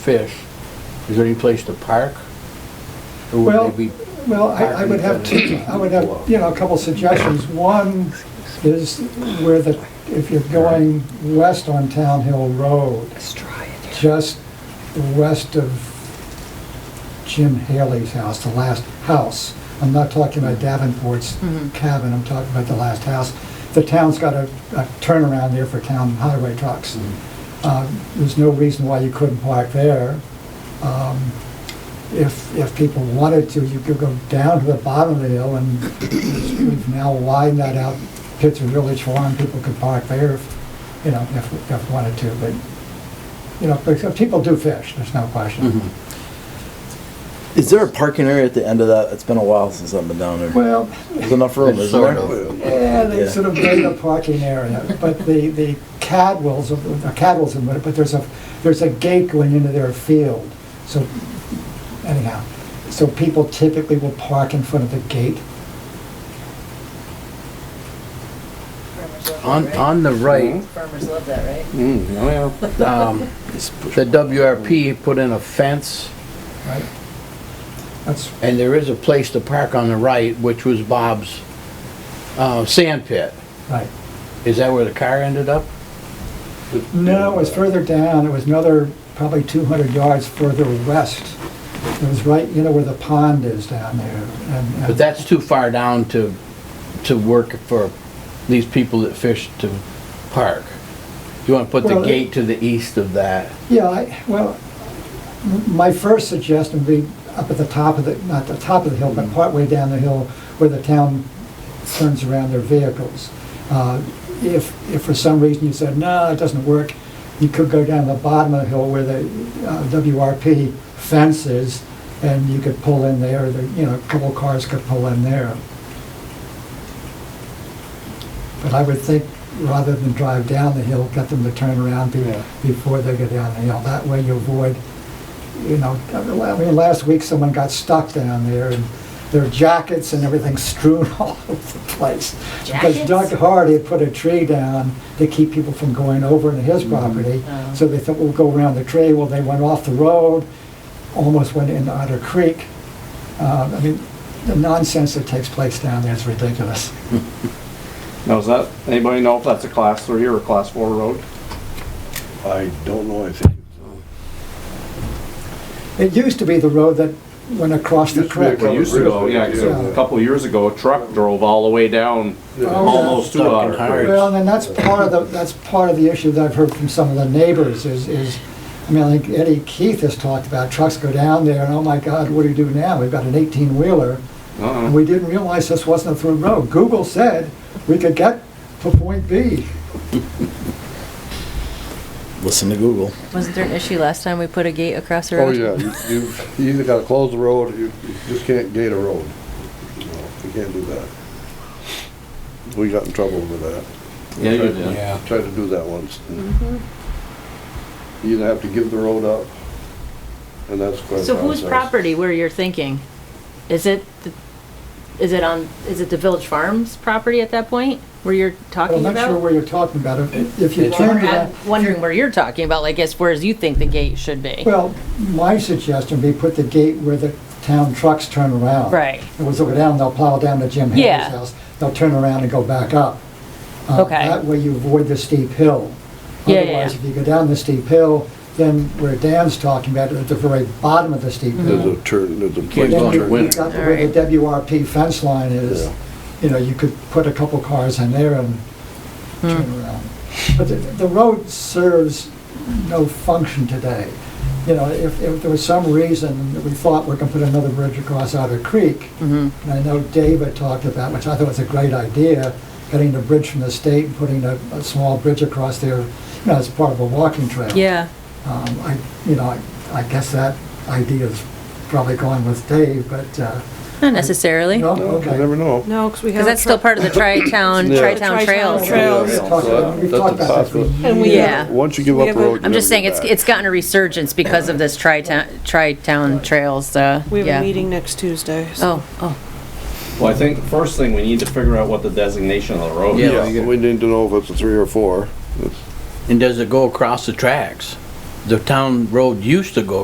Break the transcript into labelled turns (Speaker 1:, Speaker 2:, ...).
Speaker 1: fish, is there any place to park? Or would
Speaker 2: Well,
Speaker 1: they be-
Speaker 2: Well, I I would have, two- I would have, you know, a couple suggestions. One is where the, if you're going west on Town Hill Road, just west of Jim Haley's house, the last house. I'm not talking about Davenport's cabin, I'm talking about the last house. The town's got a a turnaround there for town highway trucks.
Speaker 1: Mm-hmm.
Speaker 2: Uh, There's no reason why you couldn't park there. Um, if, if people wanted to, you could go down to the bottom of the hill and we've now widened that out, Pittsburgh Village Farm, people could park there if, you know, if, if wanted to, but, you know, because people do fish, there's no
Speaker 1: Mm-hmm.
Speaker 2: question.
Speaker 3: Is there a parking area at the end of that? It's been a while since I've been down there.
Speaker 2: Well,
Speaker 3: There's enough room, isn't
Speaker 1: Sort
Speaker 3: there?
Speaker 2: yeah, they
Speaker 3: Yeah.
Speaker 2: sort of made a parking area, but the, the Cadwells, the Cadwells, in it, but there's a, there's a gate going into their field, so anyhow, so people typically will park in front of the gate.
Speaker 4: Farmers love
Speaker 1: On,
Speaker 4: that,
Speaker 1: on the right,
Speaker 4: right? Farmers love that, right?
Speaker 5: Mm, oh yeah.
Speaker 1: um, the WRP put in a fence,
Speaker 2: Right. That's,
Speaker 1: and there is a place to park on the right, which was Bob's, uh, sand pit.
Speaker 2: right.
Speaker 1: Is that where the car ended up?
Speaker 2: No, it was further down, it was another probably 200 yards further west. It was right, you know, where the pond is down there. and- and-
Speaker 1: But that's too far down to, to work for these people that fish to park. You wanna put the
Speaker 2: Well, it-
Speaker 1: gate to the east of that?
Speaker 2: Yeah, I, well, m- my first suggestion would be up at the top of the, not the top of the hill, but partway down the hill where the town turns around their vehicles. Uh, If, if for some reason you said, no, it doesn't work, you could go down the bottom of the hill where the uh, WRP fence is, and you could pull in there, There, you know, a couple cars could pull in there. But I would think, rather than drive down the hill, get them to turn around be-
Speaker 5: Yeah.
Speaker 2: before they go down the hill. That way you avoid, you know, I mean, la- I mean, last week someone got stuck down there and their jackets and everything strewn all over the place. Because
Speaker 4: Jackets?
Speaker 2: Doug Hardy had put a tree down to keep people from going over into his property.
Speaker 4: Oh.
Speaker 2: So they thought, we'll go around the tree. Well, they went off the road, almost went into Otter Creek. Uh, I mean, the nonsense that takes place down there is ridiculous.
Speaker 5: Now, is that, anybody know if that's a class three or a class four road?
Speaker 6: I don't know anything.
Speaker 2: It used to be the road that went across the
Speaker 6: Used to be a
Speaker 2: creek.
Speaker 6: Well,
Speaker 5: It
Speaker 6: it
Speaker 5: used to go,
Speaker 6: really
Speaker 5: yeah,
Speaker 6: is,
Speaker 5: 'cause a
Speaker 2: yeah.
Speaker 5: couple of years ago, a truck drove all the way down,
Speaker 6: Oh,
Speaker 5: almost to
Speaker 1: Stuck in
Speaker 5: Otter Creek.
Speaker 1: Harwich.
Speaker 2: Well, and that's part of the, that's part of the issue that I've heard from some of the neighbors is, is, I mean, like Eddie Keith has talked about, trucks go down there and oh my God, what do you do now? We've got an eighteen wheeler. And
Speaker 5: Uh-uh.
Speaker 2: we didn't realize this wasn't a through road. Google said we could get to point B.
Speaker 3: Listen to Google.
Speaker 4: Wasn't there an issue last time we put a gate across the
Speaker 6: Oh,
Speaker 4: road?
Speaker 6: yeah, you- you've, you either gotta close the road, or you you just can't gate a road. No, You can't do that. We got in trouble with that.
Speaker 5: Yeah, you did.
Speaker 6: Tried to do that once.
Speaker 2: Mm-hmm.
Speaker 6: You either have to give the road up, and that's quite a
Speaker 7: So whose
Speaker 6: process.
Speaker 7: property where you're thinking? Is it, the- is it on, is it the Village Farms property at that point where you're
Speaker 2: But I'm
Speaker 7: talking
Speaker 2: not sure
Speaker 7: about?
Speaker 2: where you're talking about. If if you
Speaker 1: It's-
Speaker 2: turn to that.
Speaker 7: I'm wondering where you're talking about, like, as whereas you think the gate should be.
Speaker 2: Well, my suggestion would be put the gate where the town trucks turn around.
Speaker 7: Right.
Speaker 2: It was over down, they'll plow down to Jim
Speaker 7: Yeah.
Speaker 2: Haley's house, they'll turn around and go back up. Uh,
Speaker 7: Okay.
Speaker 2: That way you avoid the steep hill.
Speaker 7: Yeah, yeah,
Speaker 2: Otherwise,
Speaker 7: yeah.
Speaker 2: if you go down the steep hill, then where Dan's talking about, at the very bottom of the steep
Speaker 6: There's
Speaker 2: hill.
Speaker 6: a turn, there's a.
Speaker 1: Can't go
Speaker 2: Then
Speaker 1: on your
Speaker 2: you-
Speaker 1: window.
Speaker 2: you've got the- where the WRP fence line is,
Speaker 6: Yeah.
Speaker 2: you know, you could put a couple cars in there and
Speaker 7: Hmm.
Speaker 2: turn around. But the, the road serves no function today. You know, if, if there was some reason that we thought we're gonna put another bridge across Otter Creek,
Speaker 4: Mm-hmm.
Speaker 2: and I know David talked about, which I thought was a great idea, getting the bridge from the state and putting a, a small bridge across there, you know, as part of a walking trail.
Speaker 7: Yeah,
Speaker 2: Um, I, you know, I, I guess that idea's probably going with Dave, but, uh,
Speaker 4: Not necessarily.
Speaker 2: no,
Speaker 6: No,
Speaker 2: okay.
Speaker 6: you never know.
Speaker 8: No, because we have.
Speaker 4: Because that's
Speaker 8: a
Speaker 4: still
Speaker 8: truck-
Speaker 4: part of the tri-town,
Speaker 6: Yeah.
Speaker 4: tri-town trails.
Speaker 8: Trails.
Speaker 2: We've talked about- we've
Speaker 6: That's a
Speaker 2: talked about this for
Speaker 6: possibility.
Speaker 8: And we-
Speaker 4: Yeah.
Speaker 6: Once you give
Speaker 8: We
Speaker 6: up a
Speaker 8: have a-
Speaker 6: road, you
Speaker 4: I'm just saying,
Speaker 6: never
Speaker 4: it's,
Speaker 6: get back.
Speaker 4: it's gotten a resurgence because of this tri-town, tri-town trails, uh,
Speaker 8: We have a
Speaker 4: yeah.
Speaker 8: meeting next Tuesday. so-
Speaker 4: Oh, oh.
Speaker 5: Well, I think the first thing, we need to figure out what the designation of the
Speaker 6: Oh,
Speaker 5: road
Speaker 1: Yeah.
Speaker 5: is.
Speaker 6: Yeah, we need to know if it's a three or four. It's-
Speaker 1: And does it go across the tracks? the town road used to go